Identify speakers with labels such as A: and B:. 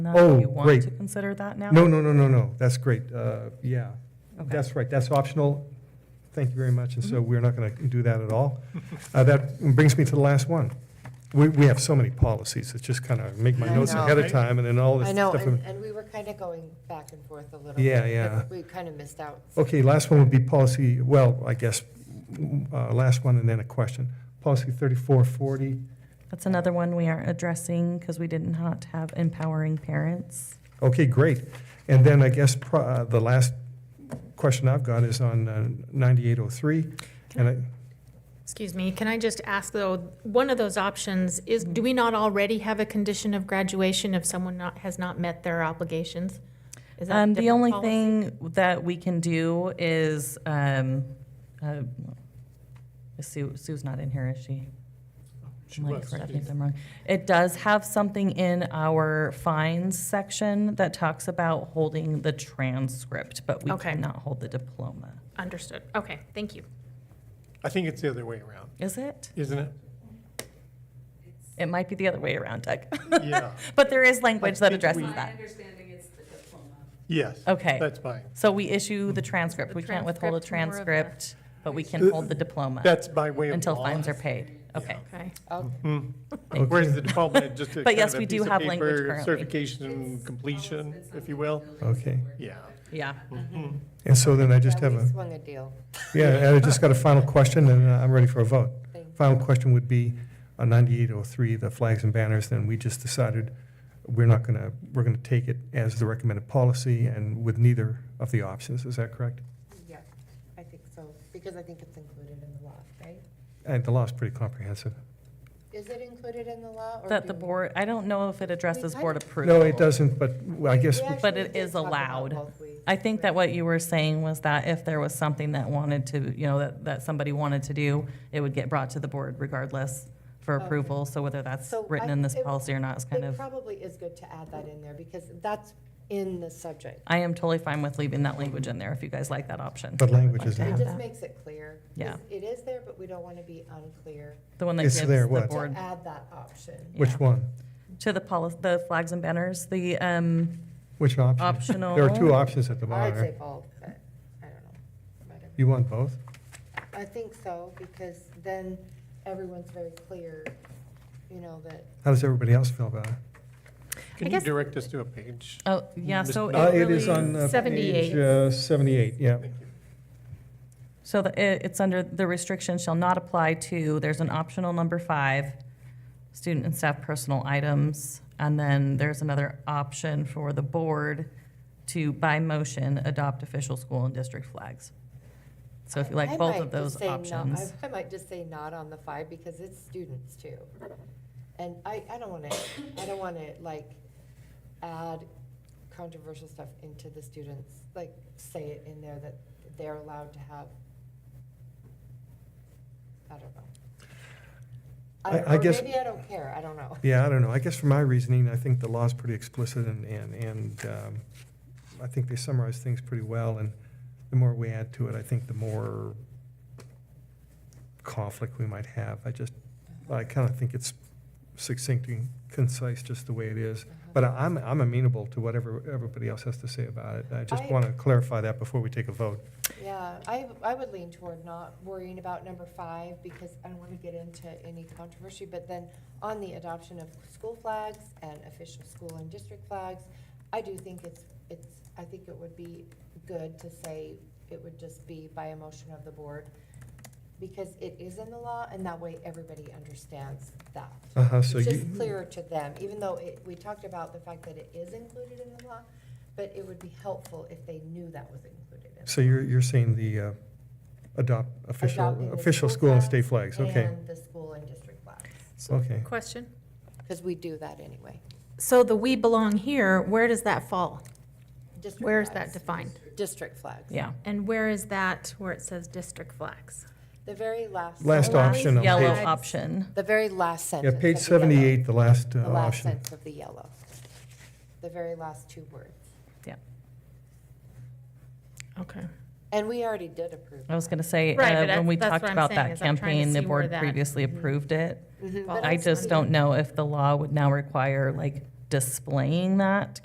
A: Now, do
B: Oh,
A: you want
B: great.
A: to consider that now?
B: No, no, no, no, no, that's great, Uh, yeah.
A: Okay.
B: That's right, that's optional, thank you very much, and so
C: Mm-hmm.
B: we're not going to do that at all. Uh, That brings me to the last one. We, we have so many policies, it's just kind of make my
C: I
B: notes
C: know.
B: ahead of time, and then all this
C: I know,
B: stuff.
C: and, and we were kind of going back and forth a little. bit,
B: Yeah,
C: but
B: yeah.
C: We kind of missed out.
B: Okay, last one would be policy, well, I guess, uh, last one and then a question. Policy 3440,
A: That's another one we aren't addressing because we did not have empowering parents.
B: okay, great. And then I guess pro- uh, the last question I've got is on uh, 9803, and I,
D: Excuse me, can I just ask though, one of those options is, do we not already have a condition of graduation if someone not, has not met their obligations? Is that a
A: Um, the
D: different
A: only
D: policy?
A: thing that we can do is, um, uh, Sue, Sue's not in here, is she? Somebody correct me if I'm wrong. It does have something in our fines section that talks about holding the transcript, but we
D: Okay.
A: cannot hold the diploma.
D: Understood, okay, thank you.
E: I think it's the other way around,
A: Is it?
E: isn't it?
A: It might be the other way around, Doug.
E: Yeah.
A: But there is language that
E: think
A: addresses
E: we-
F: My
A: that.
F: understanding is the diploma.
E: Yes.
A: Okay.
E: That's fine.
A: So we issue the transcript.
D: The
A: We can't withhold a
D: transcript's more of a-
A: transcript, but we can hold the diploma
E: That's by way of
A: until
E: law. Hmm.
A: fines are paid. Okay.
D: Okay,
C: Oh,
E: Whereas the department, just a
A: But
E: kind
A: yes,
E: of
A: we
E: a
A: do
E: piece of
A: have language
E: paper,
A: currently.
E: Certification completion, if you will.
B: okay.
E: Yeah.
A: Yeah.
B: And so then I just
C: yeah,
B: have
C: we
B: a,
C: swung a deal.
B: yeah, and I just got a final question, and uh, I'm ready for a vote.
C: Thank you.
B: Final question would be on 9803, the flags and banners, then we just decided we're not going to, we're going to take it as the recommended policy and with neither of the options, is that correct?
C: Yeah, I think so, because I think it's included in the law, right?
B: And Uh, the law is pretty comprehensive.
C: Is it included in the law? or
A: That
C: do
A: the
C: we-
A: board, I don't know if it addresses board approval.
B: No, it doesn't, but I
C: We
B: guess,
C: actually
A: But it
C: did
A: is
C: talk about
A: allowed.
C: both ways.
A: I think that what you were saying was that if there was something that wanted to, you know, that, that somebody wanted to do, it would get brought to the board regardless for
C: Okay.
A: approval. So whether that's
C: So
A: written
C: I-
A: in this
C: it-
A: policy or not is kind
C: It
A: of,
C: probably is good to add that in there, because that's in the subject.
A: I am totally fine with leaving that language in there if you guys like that option.
B: but language is,
C: It
A: have
C: just
A: that.
C: makes it clear. 'cause
A: Yeah.
C: It is there, but we don't want to be unclear
A: The one that
B: It's
A: gives
B: there,
A: the
B: what?
C: to
A: board
C: add that option.
B: which
A: yeah.
B: one?
A: to the policy, the flags and banners, the, um,
B: Which option? There are
A: Optional.
B: two options at the
C: I'd
B: bottom.
C: say
B: right?
C: both, but I don't know. Whatever.
B: You want both?
C: I think so, because then everyone's very clear, you know, that
B: How does everybody else feel about it?
D: I
E: Can you
D: guess-
E: direct us to a page?
A: Oh, yeah,
E: Miss-
A: so it
B: Uh, It
A: really,
B: is on uh, page
D: 78.
B: uh, 78, yeah.
A: so the, it, it's under, the restriction shall not apply to, there's an optional number five, student and staff personal items, and then there's another option for the board to, by motion, adopt official school and district flags. So if you
C: I
A: like both
C: might
A: of those
C: just say not-
A: options.
C: I I might just say not on the five, because it's students too. And I, I don't want to, I don't want to like add controversial stuff into the students, like say it in there that they're allowed to have. I don't know.
B: I- I
C: or
B: guess-
C: Maybe I don't care, I don't know.
B: Yeah, I don't know. I guess for my reasoning, I think the law's pretty explicit and, and, and um, I think they summarize things pretty well. And the more we add to it, I think the more conflict we might have. I just, I kind of think it's succinct and concise just the way it is. But I- I'm, I'm amenable to whatever everybody else has to say about it. I just
C: I-
B: want to clarify that before we take a vote.
C: Yeah, I, I would lean toward not worrying about number five because I don't want to get into any controversy. But then on the adoption of school flags and official school and district flags, I do think it's, it's, I think it would be good to say it would just be by a motion of the board because it is in the law and that way everybody understands that.
B: Uh-huh, so
C: It's
B: you,
C: just clearer to them, even though it, we talked about the fact that it is included in the law, but it would be helpful if they knew that was included in the
B: so you're, you're saying the uh, adopt
C: Adopting
B: official,
C: the
B: official
C: school
B: school and
C: flags
B: state flags, okay,
C: And the school and district flags,
B: okay.
D: Question?
C: because we do that anyway.
D: So the we belong here, where does that fall?
C: District
D: Where is that
C: flags.
D: defined?
C: District flags.
A: Yeah,
D: And where is that where it says district flags?
C: The very last.
B: Last
D: The last
B: option on
A: yellow
B: page
D: page-
A: option.
C: The very last
B: Yeah,
C: sentence.
B: page
C: of the yellow.
B: 78, the last uh,
C: The last
B: option.
C: sentence of the yellow. The very last two words.
D: Okay.
C: And we already did approve.
A: I was going to say,
D: Right,
A: uh,
D: but
A: when we
D: that's- that's
A: talked
D: what I'm
A: about
D: saying,
A: that
D: is I'm trying to
A: campaign, the
D: see where
A: board
D: that-
A: previously approved it.
C: Mhm,
D: Well,
C: but
A: I
C: it's
A: just
C: fine.
A: don't know if the law would now require like displaying that